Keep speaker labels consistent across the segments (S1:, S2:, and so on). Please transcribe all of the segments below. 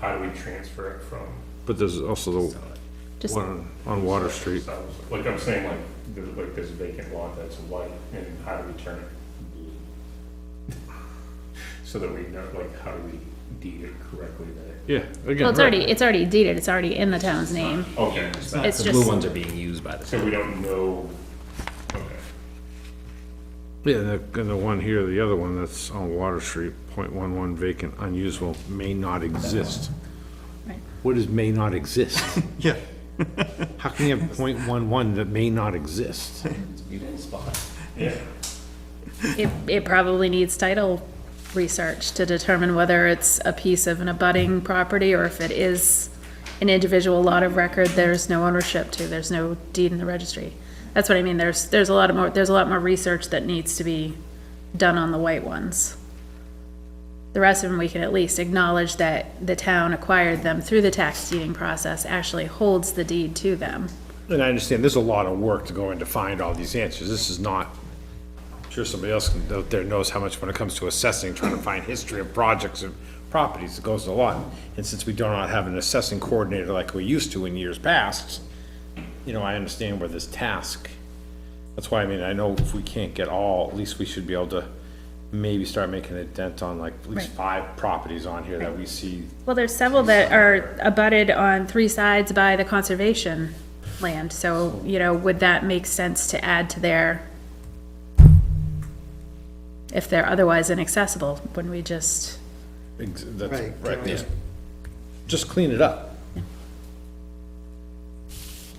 S1: how do we transfer it from?
S2: But there's also the
S3: Just-
S2: one on Water Street.
S1: So, Like I'm saying, like, there's like this vacant lot that's white, and how do we turn it? So that we know, like, how do we deed it correctly that?
S2: Yeah, again.
S3: Well, it's
S2: right.
S3: already, it's already deeded, it's already in the town's name.
S1: Okay,
S4: not-
S3: It's
S4: The
S3: just-
S4: blue ones are being used by the
S1: so
S4: town.
S1: we don't know, okay.
S2: Yeah, and the, and the one here, the other one that's on Water Street, point one one vacant, unusable, may not exist.
S3: Right.
S2: What is may not exist?
S5: Yeah.
S2: How can you have point one one that may not exist?
S1: Yeah,
S3: It, it probably needs title research to determine whether it's a piece of an abutting property or if it is an individual lot of record, there's no ownership to, there's no deed in the registry. That's what I mean, there's, there's a lot of more, there's a lot more research that needs to be done on the white ones. The rest of them, we can at least acknowledge that the town acquired them through the tax deeding process, actually holds the deed to them.
S2: And I understand, there's a lot of work to go in to find all these answers. This is not, I'm sure somebody else can- out there knows how much when it comes to assessing, trying to find history of projects and properties, it goes a lot. And since we do not have an assessing coordinator like we used to in years past, you know, I understand where this task. That's why, I mean, I know if we can't get all, at least we should be able to maybe start making a dent on like at least five properties on here that we see.
S3: Well, there's several that are abutted on three sides by the conservation land, so, you know, would that make sense to add to their, if they're otherwise inaccessible, wouldn't we just,
S2: ex- That's,
S5: Right,
S2: right,
S5: yeah.
S2: just, just clean it up.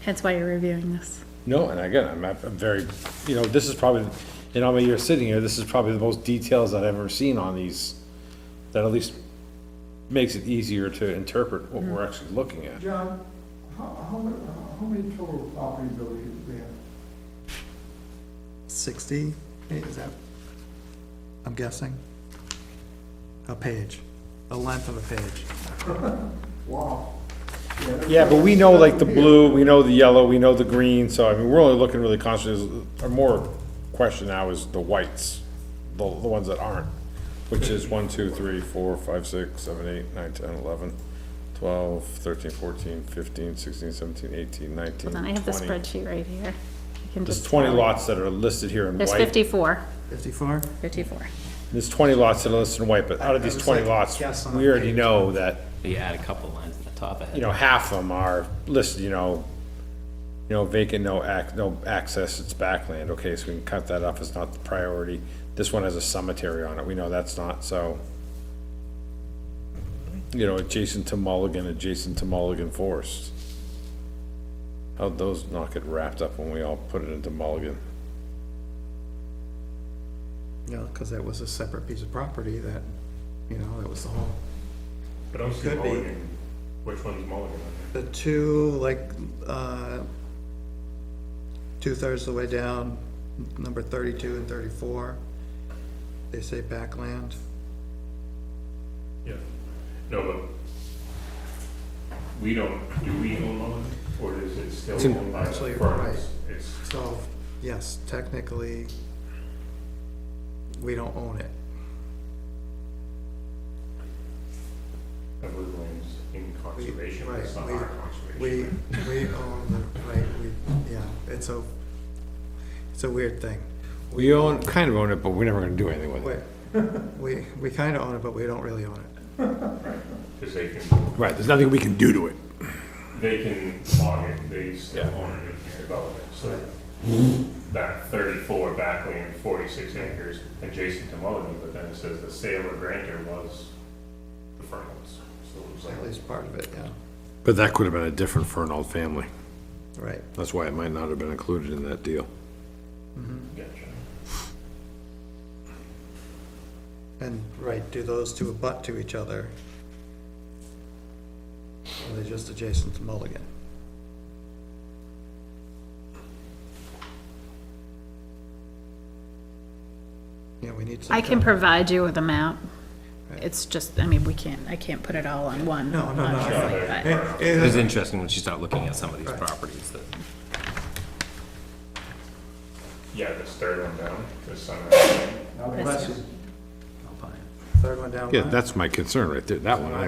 S3: hence why you're reviewing this?
S2: No, and again, I'm, I'm very, you know, this is probably, in all my years sitting here, this is probably the most details that I've ever seen on these, that at least makes it easier to interpret what
S3: Mm-hmm.
S2: we're actually looking at.
S6: John, how, how, many- how many total property buildings do we have?
S5: 60, eh, is that, I'm guessing? A page, the length of a page.
S6: Wow.
S2: Yeah, but we know like the blue, we know the yellow, we know the green, so I mean, we're only looking really constantly, our more question now is the whites, the, the ones that aren't, which is one, two, three, four, five, six, seven, eight, nine, ten, eleven, twelve, thirteen, fourteen, fifteen, sixteen, seventeen, eighteen, nineteen,
S3: Then I have the
S2: twenty.
S3: spreadsheet right here. I can
S2: There's
S3: just
S2: twenty
S3: tell.
S2: lots that are listed here in
S3: There's
S2: white,
S3: 54.
S5: 54?
S3: Fifty-four.
S2: there's twenty lots that are listed in white, but out of
S5: I
S2: these
S5: was
S2: twenty
S5: like
S2: lots,
S5: guessing on
S2: we already
S5: page.
S2: know that
S4: But you add a couple lines at the top of
S2: you
S4: it.
S2: know, half of them are listed, you know, you know, vacant, no ac, no access, it's backland, okay, so we can cut that off, it's not the priority. This one has a cemetery on it, we know that's not, so. You know, adjacent to Mulligan, adjacent to Mulligan Forest. How'd those not get wrapped up when we all put it into Mulligan?
S5: Yeah, because that was a separate piece of property that, you know, that was the whole,
S1: but I'm seeing
S5: Could be.
S1: Mulligan, which one's Mulligan on
S5: the two, like, uh, two-thirds of the way down, number 32 and 34, they say backland.
S1: there? Yeah. No, but we don't, do we own Mulligan, or is it still
S2: in-
S1: owned by the
S5: actually,
S1: firms? It's,
S5: So, yes, technically, we don't own it.
S1: everyone's in conservation,
S5: Right,
S1: it's not
S5: we-
S1: our conservation.
S5: We, we own the, right, we, yeah, it's a, it's a weird thing.
S2: We own, kind of own it, but we're never gonna do anything with
S5: We, we, we kinda own it, but we don't really own it.
S1: Cause they can,
S2: Right, there's nothing we can do to it.
S1: they can log it, they still own it in development, so. That thirty-four backland, forty-six acres adjacent to Mulligan, but then it says the sale or grantor was the Fernals, so it was
S5: At
S1: like,
S5: least part of it, yeah,
S2: But that could have been a different for an old family,
S5: right.
S2: that's why it might not have been included in that deal.
S1: gotcha.
S5: And, right, do those two abut to each other? Or are they just adjacent to Mulligan? Yeah, we need some.
S3: I can
S5: kind
S3: provide you with a map. It's just, I mean, we can't, I can't put it all on one.
S5: No, no, no.
S3: obviously, but-
S5: of- Eh,
S4: It
S5: eh,
S4: was interesting when you start looking at some of these properties that.
S1: Yeah, this third one down, this summer.
S6: Now, the question,
S5: Third one down.
S2: Yeah,
S5: line.
S2: that's my concern right there, that one, I